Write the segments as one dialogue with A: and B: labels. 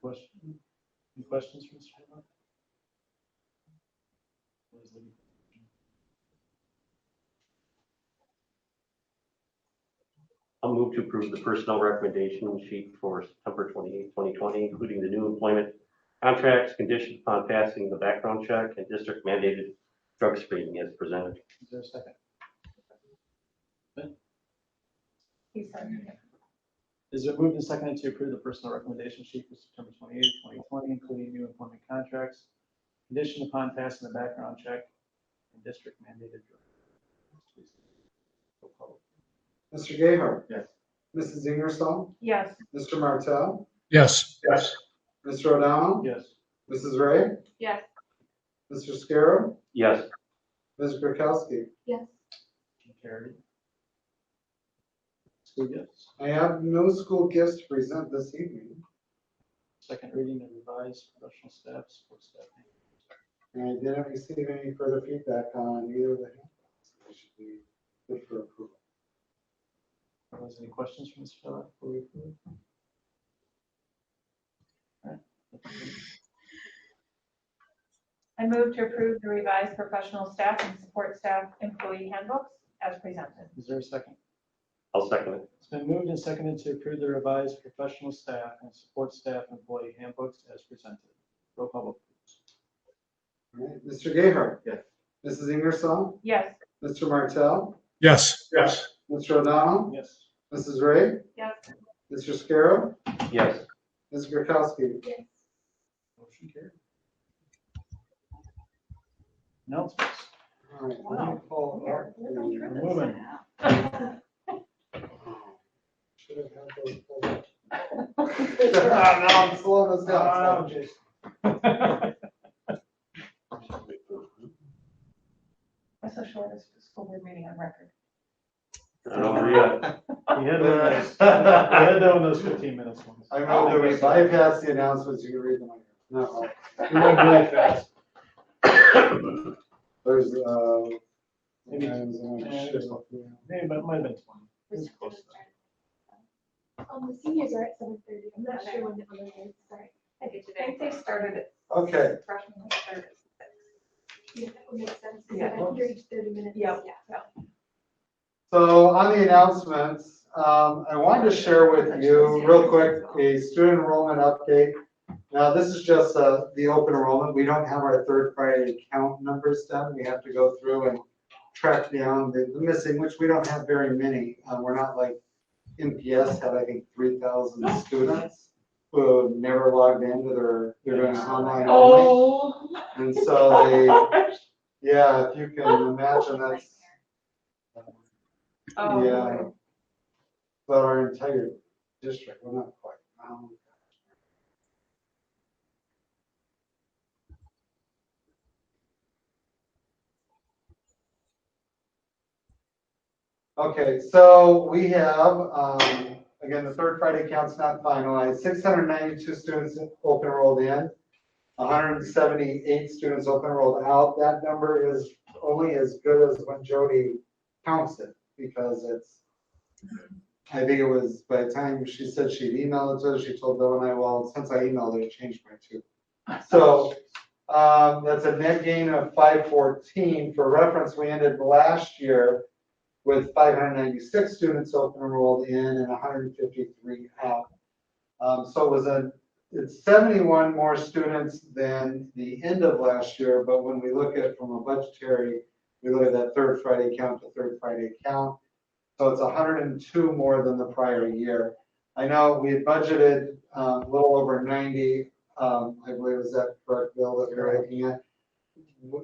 A: Question, any questions for Mr. Hamlin? What is the-
B: I'll move to approve the personnel recommendation sheet for September 28, 2020, including the new employment contracts conditioned upon passing the background check and district mandated drug screening as presented.
A: Is there a second?
C: He said,
A: Is it moved and seconded to approve the personal recommendation sheet for September 28, 2020, including new employment contracts, conditioned upon passing the background check and district mandated drug? screening? Roll call.
D: Mr. Gayheart.
A: Yes.
D: Mrs. Ingersoll.
C: yes,
D: Mr. Martell.
E: Yes,
D: Yes. Mr. O'Donnell.
A: Yes.
D: Mrs. Ray.
C: yes,
D: Mr. Scarrow.
B: Yes,
D: Ms. Grakowski.
C: yes,
A: Motion Carried. School gifts,
D: I have no school gifts to present this evening.
A: second reading of revised professional staff, support staff.
D: And I didn't receive any further feedback on either of the handbooks. They should be good for approval.
A: Are there any questions from Mr. Philip before we approve? Alright.
C: I move to approve the revised professional staff and support staff employee handbooks as presented.
A: Is there a second?
B: I'll second it.
A: It's been moved and seconded to approve the revised professional staff and support staff employee handbooks as presented. Roll call vote.
D: All right, Mr. Gayheart.
A: Yes.
D: Mrs. Ingersoll.
C: Yes,
D: Mr. Martell.
E: yes,
D: Yes. Mr. O'Donnell.
A: Yes.
D: Mrs. Ray.
C: yes,
D: Mr. Scarrow.
B: Yes,
D: Ms. Grakowski.
C: yes.
A: Motion carried. Announcements.
D: All right, let me
C: Wow.
D: pull
C: Here,
D: up
C: we're going
D: the-
C: through
A: Woman.
D: Should have had those pulled up.
C: this.
D: Ah, no, I'm slowing this down.
A: Jason.
C: I'm so sure this is school board meeting on record.
B: not over yet.
A: We had one of those, we had one of those fifteen minutes ones.
D: I know there was bypass the announcements, you can read them. No,
A: We went really fast.
D: there's, uh.
A: Maybe-
D: sometimes I'm not
A: Yeah,
D: sure.
A: there's one. Maybe, but it might have been twenty. It was close though.
F: Um, the seniors are at seven thirty, I'm not sure when the other ones start.
C: I think they started it.
D: Okay.
C: Freshman was started at six.
F: Yeah, that would make sense, because
C: Yeah.
F: I think you're each thirty minutes.
C: Yeah.
F: Yeah.
D: So on the announcements, um, I wanted to share with you real quick a student enrollment update. Now, this is just, uh, the open enrollment. We don't have our third Friday count numbers done. We have to go through and track down the the missing, which we don't have very many. Uh, we're not like NPS had, I think, three thousand students who have never logged into their, they're doing online only.
C: Oh.
D: And so they, yeah, if you can imagine that's. Yeah.
C: Oh,
D: But our entire district, well, not quite. um, Okay, so we have, um, again, the third Friday count's not finalized, six hundred ninety-two students open enrolled in, hundred and seventy-eight students open enrolled out. That number is only as good as when Jody counts it, because it's I think it was by the time she said she'd emailed it to us, she told Bill and I, well, since I emailed it, I changed my two. So, um, that's a net gain of five fourteen. For reference, we ended last year with five hundred ninety-six students open enrolled in and hundred and fifty-three out. Um, so it was a, it's seventy-one more students than the end of last year, but when we look at it from a budgetary, we look at that third Friday count to third Friday count. So it's 102 more than the prior year. I know we had budgeted um, a little over 90, um, I believe is that correct, Bill, that we we're looking at?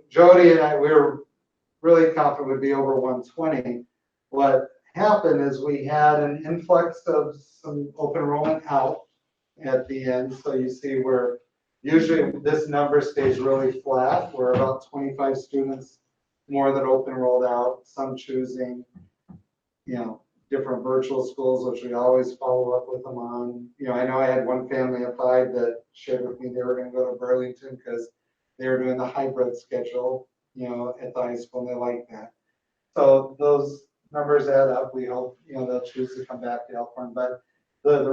D: Jody and I, we were really confident would be over 120. What happened is we had an influx of some open enrollment out at the end. So you see we're, usually this number stays really flat. We're about 25 students more than open enrolled out, some choosing you know, different virtual schools, which we always follow up with them on. You know, I know I had one family applied that shared with me they were gonna go to Burlington because they were doing the hybrid schedule, you know, at the high school, and they liked that. So those numbers add up. We hope, you know, they'll choose to come back to Elkhorn, but the, the